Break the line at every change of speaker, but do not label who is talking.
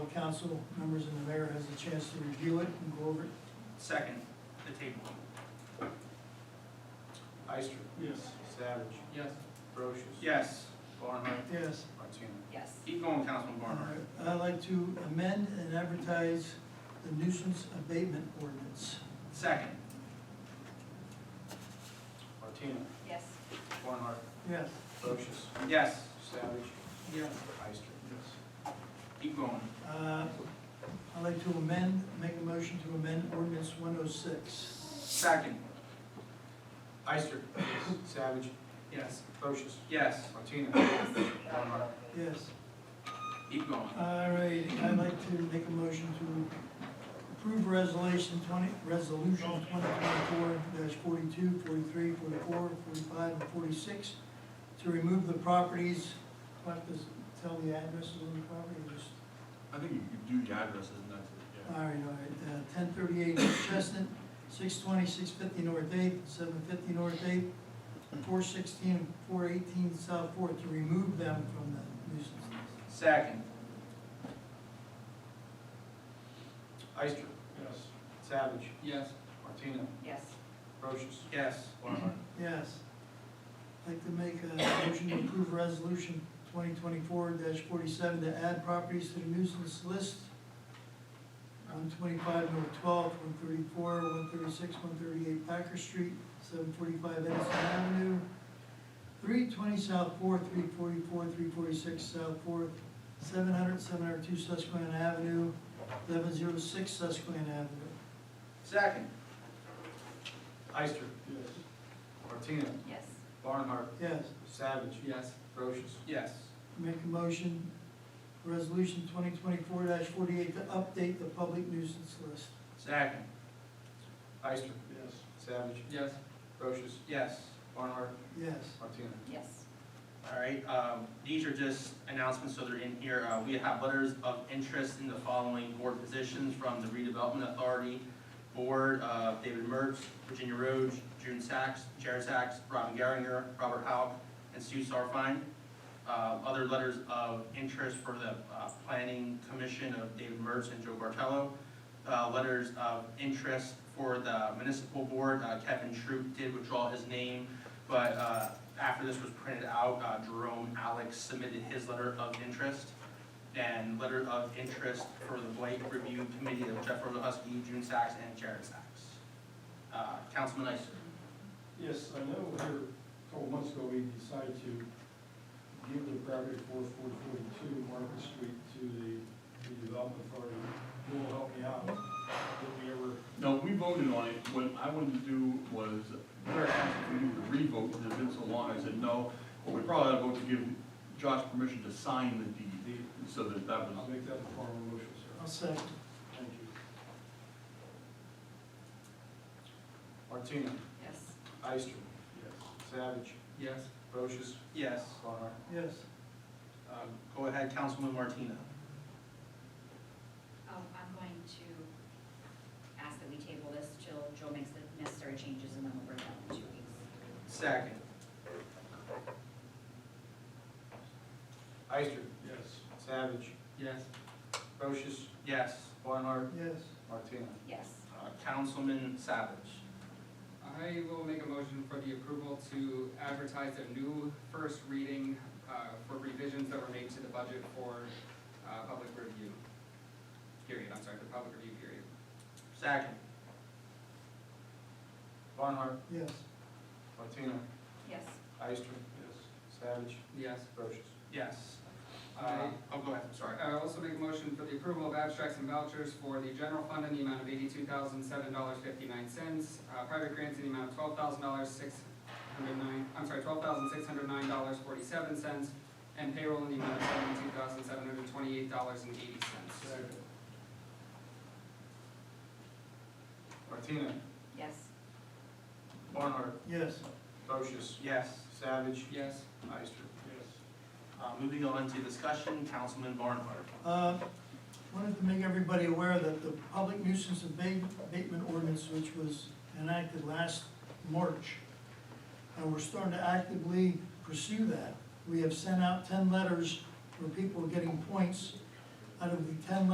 council members and the mayor has a chance to review it and go over it.
Second, the table.
Ister.
Yes.
Savage.
Yes.
Brochus.
Yes.
Barnhart.
Yes.
Martina.
Yes.
Keep going, Councilman
All
Barnhart.
right. I'd like to amend and advertise the nuisance abatement ordinance.
Second,
Martina.
Yes.
Barnhart.
Yes.
Brochus.
yes.
Savage.
Yes.
Ister.
Keep going.
Uh, I'd like to amend, make a motion to amend ordinance one oh six.
Second,
Ister. Savage.
yes.
Brochus.
Yes.
Martina. Barnhart.
Yes.
Keep going.
All right, I'd like to make a motion to approve resolution twenty, resolution twenty twenty-four dash 42, 43, 44, 45, and forty-six to remove the properties, what does, tell the addresses of the property, just,
I think you could do the addresses and that's it, yeah.
all right, all right. Uh, ten thirty-eight Chestnut, six twenty, six fifty North Eighth, seven fifty North Eighth, four sixteen, and four eighteen South Fourth, to remove them from the nuisance list.
Second,
Ister.
Yes.
Savage.
yes.
Martina.
Yes.
Brochus.
Yes.
Barnhart.
Yes. I'd like to make a motion to approve resolution twenty twenty-four forty-seven to add properties to the nuisance list on twenty-five North Twelfth, one thirty-four, one thirty-six, one thirty-eight Packer Street, seven forty-five Edison Avenue, three twenty South Fourth, three forty-four, three forty-six South Fourth, 700, 702 Susquehanna Avenue, eleven zero six Susquehanna Avenue.
Second,
Ister.
Yes.
Martina.
Yes.
Barnhart.
Yes.
Savage.
yes.
Brochus.
Yes.
Make a motion, resolution twenty twenty-four forty-eight to update the public nuisance list.
Second,
Ister.
Yes.
Savage.
yes.
Brochus.
Yes.
Barnhart.
Yes.
Martina.
Yes.
All right, um, these are just announcements, so they're in here. Uh, We have letters of interest in the following board positions from the Redevelopment Authority Board, uh, David Mertz, Virginia Roach, June Sachs, Jared Sachs, Robin Garringer, Robert Hauk, and Sue Sarfine. Uh, Other letters of interest for the uh, Planning Commission of David Mertz and Joe Bartello. Uh, Letters of interest for the Municipal Board, uh, Kevin Troop did withdraw his name, but uh, after this was printed out, uh, Jerome Alex submitted his letter of interest and letter of interest for the Blake Review Committee of Jeff Robohuski, June Sachs, and Jared Sachs. Uh, Councilman Ister.
Yes, I know here, a couple months ago, we decided to give the property four four forty-two Market Street to the, the development authority. Who will help me out? Did we ever?
No, we voted on it. What I wanted to do was, prior to council, we needed to revote, because it's been so long. I said, no, but we probably ought to vote to give Josh permission to sign the deed,
The,
so that that
I'll
was,
make that a formal motion, sir.
I'll second.
Thank you.
Martina.
Yes.
Ister.
Yes.
Savage.
Yes.
Brochus.
Yes.
Barnhart.
Yes.
Um, Go ahead, Councilman Martina.
Um, I'm going to ask that we table this till Joe makes the necessary changes and then we'll bring it up in two weeks.
Second.
Ister.
Yes.
Savage.
Yes.
Brochus.
Yes.
Barnhart.
Yes.
Martina.
Yes.
Uh, Councilman Savage.
I will make a motion for the approval to advertise a new first reading uh, for revisions that were made to the budget for uh, public review. Period, I'm sorry, the public review period.
Second.
Barnhart.
Yes.
Martina.
Yes.
Ister.
Yes.
Savage.
Yes.
Brochus.
Yes. Uh,
I-
Oh, go ahead, sorry.
I also make a motion for the approval of abstracts and vouchers for the general fund in the amount of eighty-two thousand, seven dollars, fifty-nine cents. Uh, private grants in the amount of twelve thousand dollars, six hundred nine, I'm sorry, twelve thousand, six hundred nine dollars, forty-seven cents. And payroll in the amount of seventy-two thousand, seven hundred twenty-eight dollars and eighty cents.
Second.
Martina.
Yes.
Barnhart.
Yes.
Brochus.
Yes.
Savage.
Yes.
Ister.
Yes.
Uh, Moving on to discussion, Councilman Barnhart.
Uh, Wanted to make everybody aware that the public nuisance abate- abatement ordinance, which was enacted last March, and we're starting to actively pursue that. We have sent out ten letters where people are getting points. Out of the ten